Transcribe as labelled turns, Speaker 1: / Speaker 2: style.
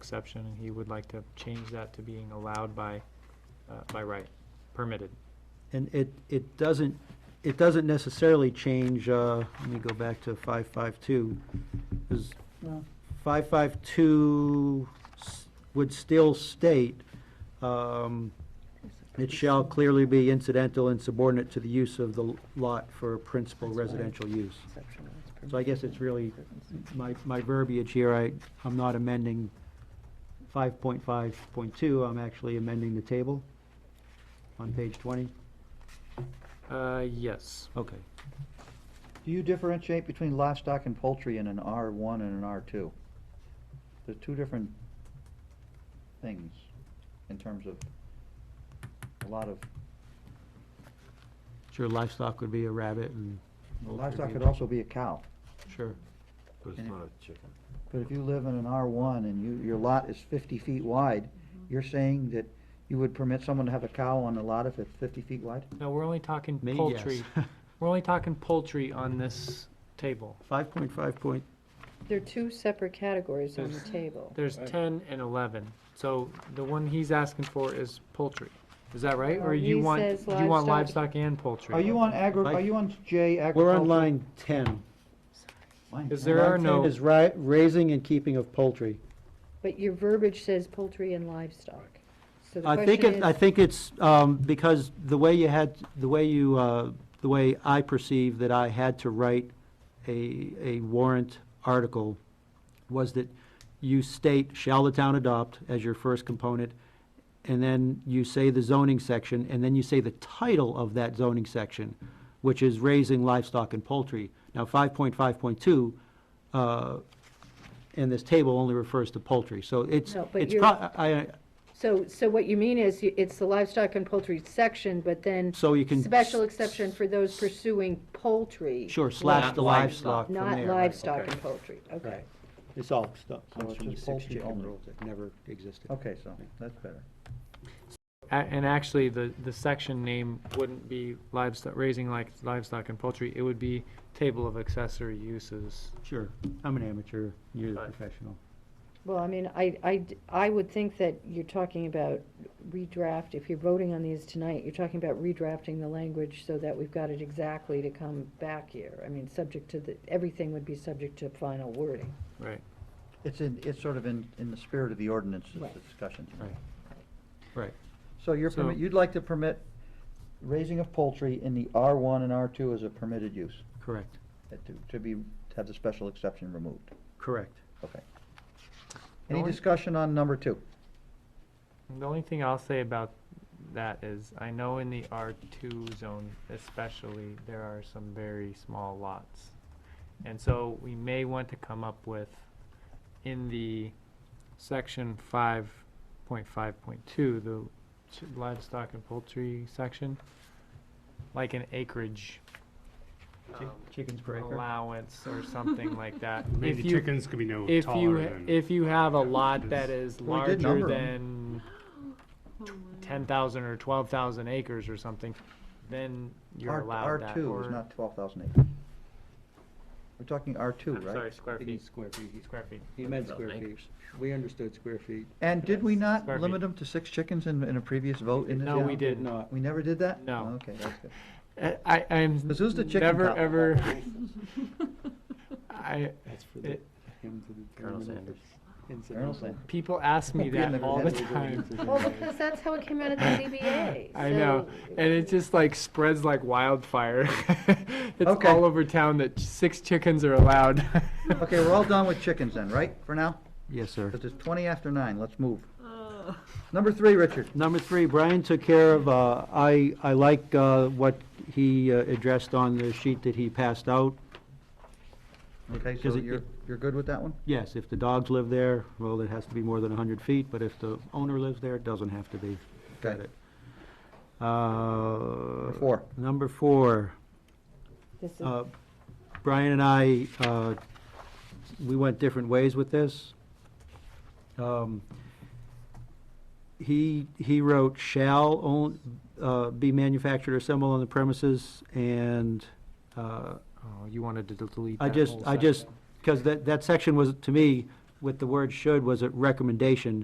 Speaker 1: exception, and he would like to change that to being allowed by, uh, by right, permitted.
Speaker 2: And it, it doesn't, it doesn't necessarily change, uh, let me go back to five five two. Because
Speaker 3: Well,
Speaker 2: five five two would still state, um, it shall clearly be incidental and subordinate to the use of the lot for principal
Speaker 3: That's right.
Speaker 2: residential use.
Speaker 3: exception, that's
Speaker 2: So I guess it's really,
Speaker 3: permitted.
Speaker 2: my, my verbiage here, I, I'm not amending five point five point two, I'm actually amending the table on page twenty.
Speaker 1: Uh, yes.
Speaker 2: Okay.
Speaker 4: Do you differentiate between livestock and poultry in an R one and an R two? They're two different things in terms of a lot of,
Speaker 2: Sure, livestock would be a rabbit and,
Speaker 4: livestock could also be a cow.
Speaker 2: sure.
Speaker 5: But it's
Speaker 4: And it-
Speaker 5: not a chicken.
Speaker 4: But if you live in an R one and you, your lot is fifty feet wide, you're saying that you would permit someone to have a cow on a lot if it's fifty feet wide?
Speaker 1: No, we're only talking
Speaker 2: Me,
Speaker 1: poultry. We're only talking poultry on this table.
Speaker 2: Five point five point,
Speaker 3: There are two separate categories on the
Speaker 1: There's-
Speaker 3: table.
Speaker 1: There's ten and eleven, so the one he's asking for is poultry. Is that right? Or
Speaker 3: Well,
Speaker 1: you
Speaker 3: he
Speaker 1: want,
Speaker 3: says
Speaker 1: you want
Speaker 3: livestock.
Speaker 1: livestock and poultry?
Speaker 4: Are you on agri, are you on J
Speaker 2: we're
Speaker 4: agriculture?
Speaker 2: on line ten.
Speaker 4: Line
Speaker 1: Is
Speaker 4: 10.
Speaker 1: There are
Speaker 2: Line 10
Speaker 1: no-
Speaker 2: Is ri- raising and keeping of poultry.
Speaker 3: But your verbiage says poultry and livestock. So the
Speaker 2: I think
Speaker 3: question
Speaker 2: it, I
Speaker 3: is,
Speaker 2: think it's, um, because the way you had, the way you, uh, the way I perceive that I had to write a, a warrant article was that you state, shall the town adopt as your first component, and then you say the zoning section, and then you say the title of that zoning section, which is raising livestock and poultry. Now, five point five point two, uh, in this table only refers to poultry, so it's,
Speaker 3: No, but
Speaker 2: it's,
Speaker 3: you're-
Speaker 2: pro- I,
Speaker 3: so, so what you mean is you- it's the livestock and poultry section, but then
Speaker 2: so you can.
Speaker 3: special exception for those pursuing poultry.
Speaker 2: Sure, slash the livestock from
Speaker 3: Not
Speaker 2: there, right.
Speaker 3: livestock and poultry, okay.
Speaker 2: Right. It's all stuff,
Speaker 4: So it's
Speaker 2: comes from the
Speaker 4: just
Speaker 2: six
Speaker 4: poultry
Speaker 2: chicken
Speaker 4: only.
Speaker 2: rules that never existed.
Speaker 4: Okay, so, that's better.
Speaker 1: A- And actually, the, the section name wouldn't be livestock, raising like livestock and poultry, it would be table of accessory uses.
Speaker 2: Sure, I'm an amateur, you're the
Speaker 1: Right.
Speaker 2: professional.
Speaker 3: Well, I mean, I, I d- I would think that you're talking about redraft, if you're voting on these tonight, you're talking about redrafting the language so that we've got it exactly to come back here. I mean, subject to the, everything would be subject to final wording.
Speaker 1: Right.
Speaker 4: It's in, it's sort of in, in the spirit of the ordinance, is
Speaker 3: Right.
Speaker 4: the discussion tonight.
Speaker 2: Right. Right.
Speaker 4: So you're,
Speaker 1: So-
Speaker 4: permit- you'd like to permit raising of poultry in the R1 and R2 as a permitted use,
Speaker 2: Correct,
Speaker 4: uh, to, to be, to have the special exception removed,
Speaker 2: correct.
Speaker 4: okay.
Speaker 1: No
Speaker 4: Any
Speaker 1: one-
Speaker 4: discussion on number two?
Speaker 1: The only thing I'll say about that is, I know in the R2 zone especially, there are some very small lots. And so we may want to come up with, in the section 5.5.2, the ch- livestock and poultry section, like an acreage um,
Speaker 2: Chickens per acre?
Speaker 1: allowance or something like that.
Speaker 6: Maybe
Speaker 1: If you-
Speaker 6: chickens could be no
Speaker 1: If you,
Speaker 6: taller
Speaker 1: ha-
Speaker 6: than.
Speaker 1: if you have a lot that is
Speaker 4: We did number
Speaker 1: larger
Speaker 4: 'em.
Speaker 1: than Oh, ten thousand or twelve thousand acres or something, then you're
Speaker 4: R-
Speaker 1: allowed that.
Speaker 4: R2
Speaker 1: or-
Speaker 4: is not 12,000 acres. We're talking R2,
Speaker 1: I'm
Speaker 4: right?
Speaker 1: sorry, square feet,
Speaker 2: Square feet.
Speaker 1: square feet.
Speaker 2: He meant square feet. We understood square feet.
Speaker 4: And did we not
Speaker 1: Square
Speaker 4: limit
Speaker 1: feet.
Speaker 4: them to six chickens in, in a previous vote in this
Speaker 1: No, we
Speaker 4: town?
Speaker 1: did not.
Speaker 2: not.
Speaker 4: We never did that? Oh,
Speaker 1: No.
Speaker 4: Okay, that's good.
Speaker 1: I, I'm
Speaker 4: This is the chicken
Speaker 1: never,
Speaker 4: cock.
Speaker 1: ever. I,
Speaker 7: That's for
Speaker 1: the- It-
Speaker 7: Colonel Sanders.
Speaker 4: Colonel Sanders.
Speaker 1: people ask me
Speaker 4: We'll be in
Speaker 1: that
Speaker 4: the-
Speaker 1: all the
Speaker 4: we'll
Speaker 1: time.
Speaker 3: Well, because that's how it came out at the ZBA.
Speaker 1: I know,
Speaker 3: so-
Speaker 1: and it just like spreads like wildfire. It's
Speaker 4: Okay.
Speaker 1: all over town that six chickens are allowed.
Speaker 4: Okay, we're all done with chickens then, right, for now?
Speaker 2: Yes, sir.
Speaker 4: Because it's 20 after nine, let's move. Number three, Richard.
Speaker 2: Number three, Brian took care of, uh, I, I like uh, what he uh, addressed on the sheet that he passed out.
Speaker 4: Okay, so
Speaker 2: Does it-
Speaker 4: you're, you're good with that one?
Speaker 2: Yes, if the dogs live there, well, it has to be more than 100 feet, but if the owner lives there, it doesn't have to be. Got
Speaker 4: Okay.
Speaker 2: it. Number
Speaker 4: four.
Speaker 2: Number four.
Speaker 3: This is-
Speaker 2: Uh, Brian and I, uh, we went different ways with this. Um, He, he wrote shall own, uh, be manufactured or assembled on the premises, and uh,
Speaker 1: Oh, you wanted to delete
Speaker 2: I
Speaker 1: that
Speaker 2: just,
Speaker 1: whole
Speaker 2: I just,
Speaker 1: section.
Speaker 2: because that, that section was, to me, with the word should was a recommendation